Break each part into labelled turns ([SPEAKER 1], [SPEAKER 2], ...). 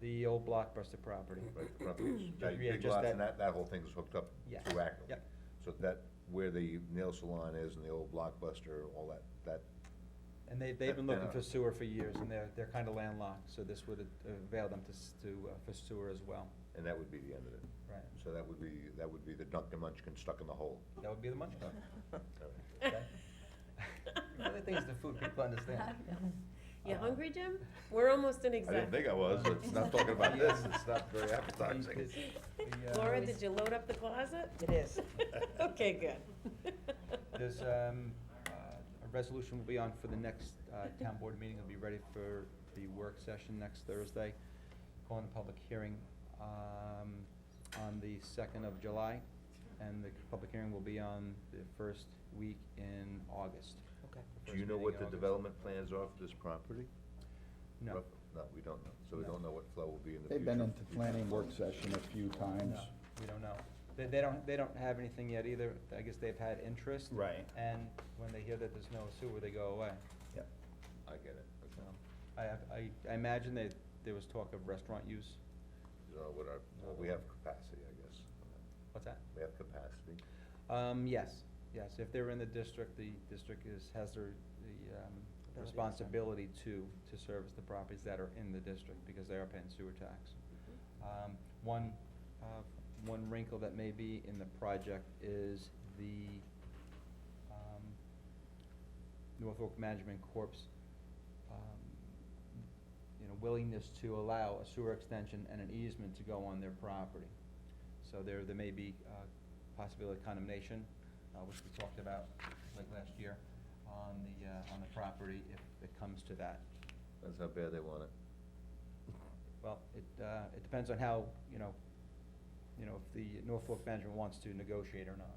[SPEAKER 1] the old Blockbuster property.
[SPEAKER 2] Right, the properties.
[SPEAKER 1] Ju-
[SPEAKER 2] Now, your
[SPEAKER 1] yeah,
[SPEAKER 2] big
[SPEAKER 1] just
[SPEAKER 2] lots and
[SPEAKER 1] that-
[SPEAKER 2] that, that whole thing is hooked up
[SPEAKER 1] Yeah,
[SPEAKER 2] through Acton.
[SPEAKER 1] yep.
[SPEAKER 2] So that, where the nail salon is and the old Blockbuster, all that, that,
[SPEAKER 1] And they, they've been
[SPEAKER 2] Yeah.
[SPEAKER 1] looking for sewer for years, and they're, they're kinda landlocked, so this would uh, avail them to, s- to, uh, for sewer as well.
[SPEAKER 2] and that would be the end of it.
[SPEAKER 1] Right.
[SPEAKER 2] So that would be, that would be the Dunkin' Munchkin stuck in the hole.
[SPEAKER 1] That would be the munch club.
[SPEAKER 2] All right.
[SPEAKER 1] Okay. The other thing is the food people understand. Uh-huh.
[SPEAKER 3] You hungry, Jim? We're almost in
[SPEAKER 2] Uh-huh. I didn't
[SPEAKER 3] exact.
[SPEAKER 2] think I was, it's not talking about this, it's not very
[SPEAKER 1] The-
[SPEAKER 2] appetizing.
[SPEAKER 1] the- the, uh,
[SPEAKER 3] Laura, did you load up the closet?
[SPEAKER 4] It is.
[SPEAKER 3] Okay, good.
[SPEAKER 1] There's, um, uh, a resolution will be on for the next, uh, town board meeting, it'll be ready for the work session next Thursday. Calling a public hearing, um, on the second of July, and the public hearing will be on the first week in August.
[SPEAKER 4] Okay.
[SPEAKER 1] the
[SPEAKER 2] Do you
[SPEAKER 1] first
[SPEAKER 2] know
[SPEAKER 1] meeting
[SPEAKER 2] what
[SPEAKER 1] in
[SPEAKER 2] the
[SPEAKER 1] August.
[SPEAKER 2] development plans are for this property?
[SPEAKER 1] No,
[SPEAKER 2] Rough- No, we don't know, so we
[SPEAKER 1] No.
[SPEAKER 2] don't know what flow will be in the future.
[SPEAKER 5] They've been into planning work session a few times.
[SPEAKER 1] no, we don't know. They, they don't, they don't have anything yet either, I guess they've had interest.
[SPEAKER 5] Right.
[SPEAKER 1] And when they hear that there's no sewer, they go away.
[SPEAKER 5] Yep.
[SPEAKER 2] I get it, okay.
[SPEAKER 1] So, I, have- I, I imagine that there was talk of restaurant use.
[SPEAKER 2] You know, uh, what our, well, we have capacity, I guess.
[SPEAKER 1] What's that?
[SPEAKER 2] We have capacity.
[SPEAKER 1] Um, yes, yes, if they're in the district, the district is, has their, the, um,
[SPEAKER 4] to serve.
[SPEAKER 1] responsibility to, to service the properties that are in the district, because they are paying sewer tax. Um, one, uh, one wrinkle that may be in the project is the, um, Norfolk Management Corp's, um, you know, willingness to allow a sewer extension and an easement to go on their property. So there, there may be, uh, possibility of condemnation, uh, which we talked about late last year, on the, uh, on the property if it comes to that.
[SPEAKER 2] That's how bad they want it.
[SPEAKER 1] Well, it, uh, it depends on how, you know, you know, if the Norfolk management wants to negotiate or not.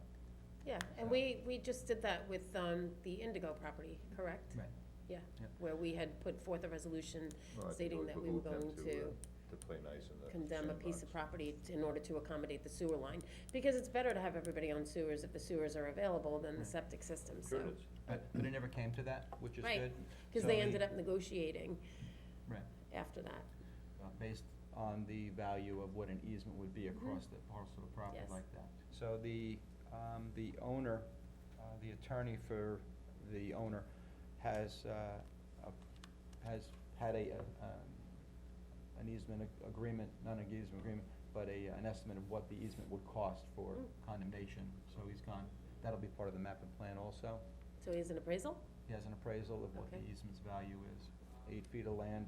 [SPEAKER 3] Yeah,
[SPEAKER 1] uh,
[SPEAKER 3] and we, we just did that with, um, the Indigo property, correct?
[SPEAKER 1] Right.
[SPEAKER 3] Yeah,
[SPEAKER 1] Yeah.
[SPEAKER 3] where we had put forth a resolution
[SPEAKER 2] Well, I think it
[SPEAKER 3] stating
[SPEAKER 2] would
[SPEAKER 3] that we were
[SPEAKER 2] behoove them
[SPEAKER 3] going
[SPEAKER 2] uh,
[SPEAKER 3] to
[SPEAKER 2] To play nice in the
[SPEAKER 3] condemn a piece of
[SPEAKER 2] sandbox.
[SPEAKER 3] property t- in order to accommodate the sewer line. Because it's better to have everybody on sewers if the sewers are available than the
[SPEAKER 1] Right.
[SPEAKER 3] septic system, so.
[SPEAKER 2] Sure it is.
[SPEAKER 1] But, but it never came to that, which is
[SPEAKER 3] Right,
[SPEAKER 1] good.
[SPEAKER 3] Cause
[SPEAKER 1] So
[SPEAKER 3] they
[SPEAKER 1] we-
[SPEAKER 3] ended up negotiating
[SPEAKER 1] Right,
[SPEAKER 3] after that.
[SPEAKER 1] uh, based on the value of what an easement would be across the parcel of property
[SPEAKER 3] Mm-hmm. Yes.
[SPEAKER 1] like that. So the, um, the owner, uh, the attorney for the owner has, uh, a- has had a, uh, um, an easement ag- agreement, not an easement agreement, but a, an estimate of what the easement would cost for
[SPEAKER 3] Mm.
[SPEAKER 1] condemnation, so he's gone, that'll be part of the map and plan also.
[SPEAKER 3] So he has an appraisal?
[SPEAKER 1] He has an appraisal of what the
[SPEAKER 3] Okay.
[SPEAKER 1] easement's value is, eight feet of land,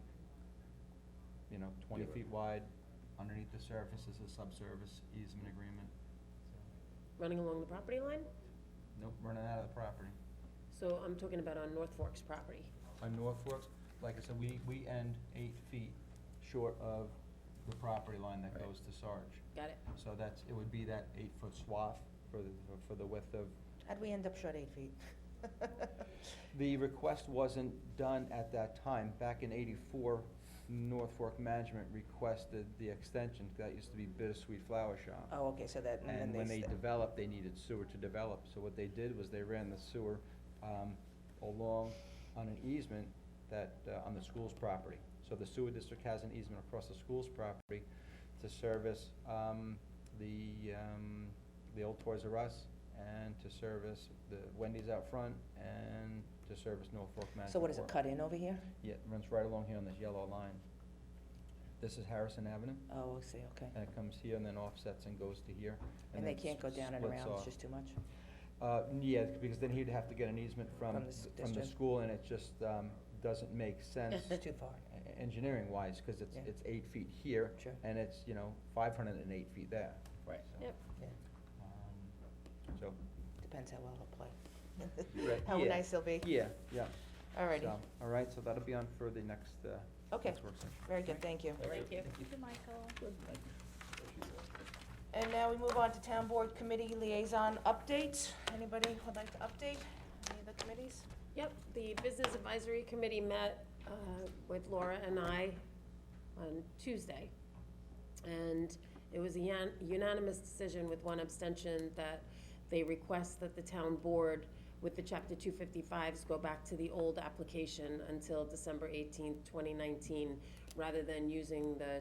[SPEAKER 1] you know, twenty
[SPEAKER 2] Yeah.
[SPEAKER 1] feet wide, underneath the surface is a subsurface easement agreement.
[SPEAKER 3] Running along the property line?
[SPEAKER 1] Nope, running out of the property.
[SPEAKER 3] So I'm talking about on North Fork's property.
[SPEAKER 1] On North Fork, like I said, we, we end eight feet short of the property line that
[SPEAKER 5] Right.
[SPEAKER 1] goes to Sarge.
[SPEAKER 3] Got it?
[SPEAKER 1] So that's, it would be that eight-foot swath for the, for the width of
[SPEAKER 4] How'd we end up short eight feet?
[SPEAKER 1] The request wasn't done at that time. Back in eighty-four, North Fork Management requested the extension, that used to be Bittersweet Flower Shop.
[SPEAKER 4] Oh, okay, so that, and
[SPEAKER 1] And
[SPEAKER 4] then
[SPEAKER 1] when
[SPEAKER 4] they.
[SPEAKER 1] they
[SPEAKER 4] sta-
[SPEAKER 1] developed, they needed sewer to develop, so what they did was they ran the sewer, um, along on an easement that, uh, on the school's property. So the sewer district has an easement across the school's property to service, um, the, um, the old Toys R Us and to service the Wendy's out front and to service Norfolk Management
[SPEAKER 4] So what is it,
[SPEAKER 1] Corp.
[SPEAKER 4] cut in over here?
[SPEAKER 1] Yeah, it runs right along here on this yellow line. This is Harrison Avenue,
[SPEAKER 4] Oh, I see, okay.
[SPEAKER 1] and it uh, comes here and then offsets and goes to here.
[SPEAKER 4] And they
[SPEAKER 1] then
[SPEAKER 4] can't go
[SPEAKER 1] s-
[SPEAKER 4] down and
[SPEAKER 1] splits
[SPEAKER 4] around, it's
[SPEAKER 1] off.
[SPEAKER 4] just too much?
[SPEAKER 1] Uh, yeah, because then he'd have to get an easement from,
[SPEAKER 4] From the s-
[SPEAKER 1] from the
[SPEAKER 4] district.
[SPEAKER 1] school, and it just, um, doesn't make sense
[SPEAKER 4] It's too far.
[SPEAKER 1] engineering wise, cause it's,
[SPEAKER 4] Yeah.
[SPEAKER 1] it's eight feet here,
[SPEAKER 4] Sure.
[SPEAKER 1] and it's, you know, five hundred and eight feet there.
[SPEAKER 5] Right.
[SPEAKER 1] So,
[SPEAKER 3] Yep.
[SPEAKER 4] Yeah,
[SPEAKER 1] um, So.
[SPEAKER 4] Depends how well they'll play.
[SPEAKER 1] Right,
[SPEAKER 4] How
[SPEAKER 1] yeah,
[SPEAKER 4] nice they'll be.
[SPEAKER 1] Yeah, yeah.
[SPEAKER 4] Alrighty,
[SPEAKER 1] So, All right, so that'll be on for the next, uh,
[SPEAKER 4] okay,
[SPEAKER 1] next work session.
[SPEAKER 4] very good, thank you.
[SPEAKER 3] Thank you.
[SPEAKER 6] Thank you, Michael.
[SPEAKER 4] And now we move on to town board committee liaison updates. Anybody would like to update any of the committees?
[SPEAKER 3] Yep, the Business Advisory Committee met uh, with Laura and I on Tuesday. And it was a yan- unanimous decision with one abstention that they request that the town board with the chapter two fifty-fives go back to the old application until December eighteenth, twenty nineteen, rather than using the